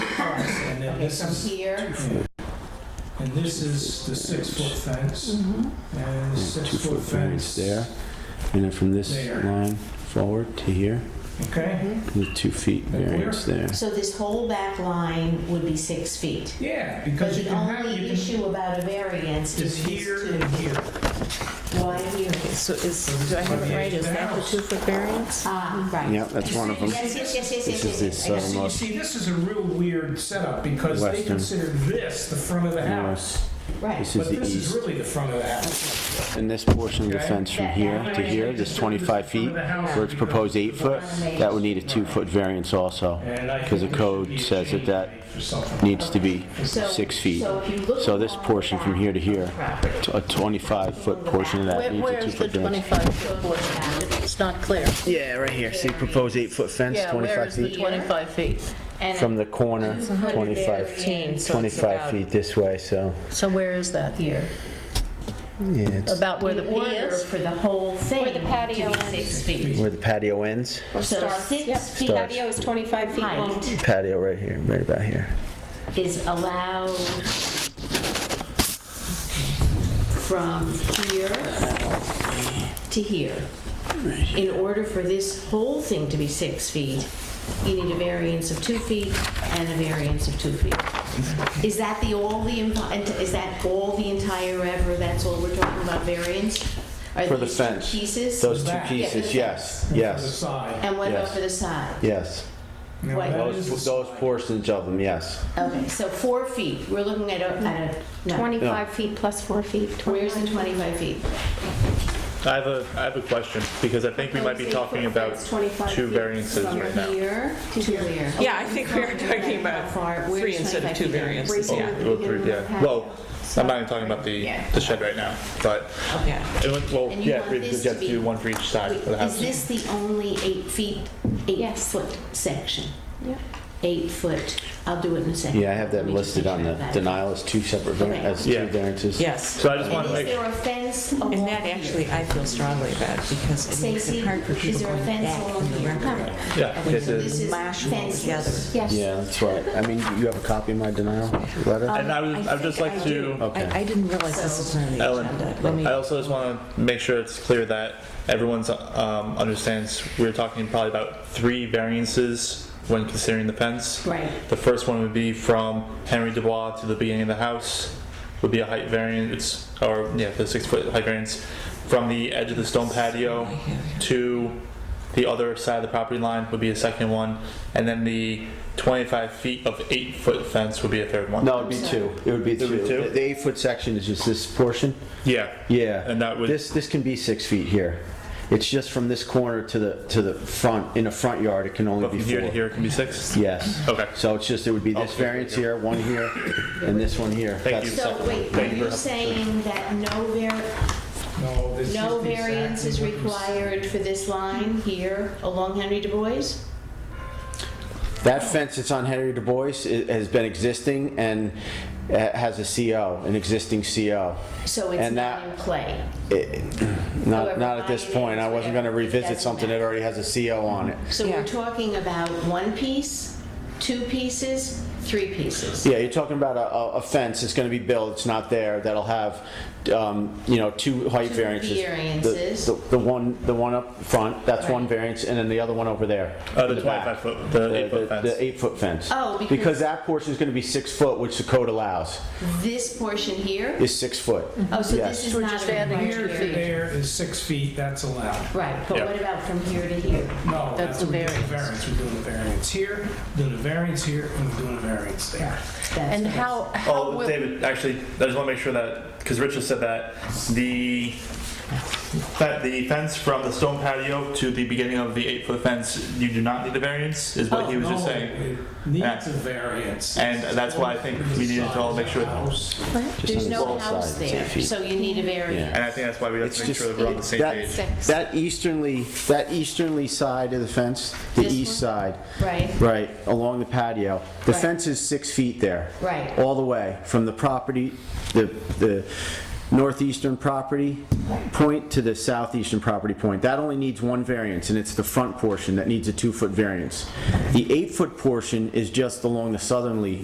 across, and then Okay, this from is, here. and this is the six-foot fence, Mhm. Mm-hmm. and the Two-foot six-foot variance fence. there. And then from this There. line forward to here, Okay? the two feet That clear? variance there. So this whole back line would be six feet. Yeah, But because you the can have, only you can, issue about a variance it's is these here and two. here. Why here? So is, do I have it right? Is that the two-foot variance? Ah, right. Yep, that's one of them. Yes, yes, yes, yes, This yes, yes, is the yes. I got it. southern- See, Almost. see, this is a real weird setup, because they Western. consider this the front of the house. North. Right. This is But the this is east. really the front of the house. And this portion of the Okay. fence from That- here that to here, line this is the front 25 feet, of the house where it's because proposed eight the foot, line- that would need a two-foot variance also. And I think 'cause the there should code be a says that change that made for something. Needs to be So- six feet. So if you look So this along the portion from back here to here, of the property, t- a 25-foot portion of that Where- needs a Where's the two-foot variance. 25-foot portion? It's not clear. Yeah, right here. See, proposed eight-foot fence, Yeah, where 25 is the feet. 25 feet? and From the corner, 25, 15, so it's 25 about- feet this way, so, So where is that? Here. yeah, it's About where the In P order is? For the whole thing. Where the patio to be is. Six feet. where the patio ends. So Starts. Yep. six feet Starts. Patio is 25 feet long. height Patio right here, right about here. is allowed from here to here. In order for this whole thing to be six feet, you need a variance of two feet and a variance of two feet. Is that the, all the, enti- is that all the entire ever, that's all we're talking about variance? Are For the these two fence. Pieces? Those two Back. pieces, yes, And For the yes, side. And what about yes. for the side? yes. Now, Wait. that is the Those, those side. portions of them, yes. Okay, so four feet, we're looking at a, at a, no. 25 feet plus 4 feet. Where's the 25 feet? I have a, I have a question, because I think we might be talking about two variances right now. Here to here. Yeah, I think we are talking about three instead of two variances, Oh, yeah. well, three, yeah. Well, I'm not even talking about the, the shed right now, but, Yeah. it went- well, And you yeah, want we this just to have to be- do one for each side of the Is house. this the only eight feet, eight Yes. foot section? Yeah. Eight foot, I'll do it in a second. Yeah, I have Let that me just listed make on sure the of that. denial as two separate, var- Okay. as two Yeah. variances. Yes. So I just want to And is make, there a fence along And that here? actually, I feel strongly about because it makes Stacy, it hard for is people there a going fence back along from the here? record. yeah, When this you is, This is Mash them all together. fenceless. Yes. Yeah, that's right. I mean, you have a copy of my denial letter? and I would, I would just like to. Okay. I, I didn't realize this was on the Ellen, agenda. Let me, I also just want to make sure it's clear that everyone's um, understands we're talking probably about three variances when considering the fence. Right. The first one would be from Henry Dubois to the beginning of the house would be a height variance, or yeah, the six foot height variance from the edge of the stone patio to the other side of the property line would be a second one, and then the 25 feet of eight foot fence would be a third one. No, it'd be two. It would be It would be two. two? The eight-foot section is just this portion. Yeah. Yeah. And that would- This, this can be six feet here. It's just from this corner to the, to the front, in the front yard, it can only But be from four. here to here it can be six. Yes. Okay. So it's just, it would be this Okay. variance here, one here, and this one here. Thank That's- you. So wait, Thank are you you for- saying that no var, No, this is no the exact variance is one. required for this line here along Henry Du Bois? That fence that's on Henry Du Bois i- has been existing and uh, has a CO, an existing CO. So it's And not that- in play? It- Not, However, not at this mine point. is I wasn't gonna whatever. revisit Doesn't something that matter. already has a CO on it. So Yeah. we're talking about one piece, two pieces, three pieces. Yeah, you're talking about a- a, a fence that's gonna be built, it's not there, that'll have, um, you know, two height Two variances. The- variances. The, the one, the one up front, that's one Right. variance, and then the other one over there. Uh, in the back. 25 foot, the eight foot fence. The eight foot fence. Oh, because- Because that portion's gonna be six foot, which the code allows, This portion here, is six foot. oh, so yes. this is not just a adding required two Here to variance. there is six feet, that's allowed. Right, but Yeah. what about from here to here? No, That's that's the what we're doing the variance. variance. We're doing the variance here, doing the variance here, and we're doing the variance there. That's And what I- how, how Oh, will, David, actually, I just want to make sure that, because Rich just said that, the, that the fence from the stone patio to the beginning of the eight-foot fence, you do not need a variance, is what he was just Oh, No, saying. it Needs Yeah. a variance. And that's why I think we needed to all make sure- House. There's no both house sides, there, eight feet. so you need a variance. And I think that's why we have It's to make sure just- that we're on the same That- page. That easternly, that easternly side of the fence, the This east side. Right. Right, along the patio. The Right. fence is six feet there. Right. All the way, from the property, the, the, northeastern property point to the southeastern property point. That only needs one variance, and it's the front portion that needs a two-foot variance. The eight-foot portion is just along the southerly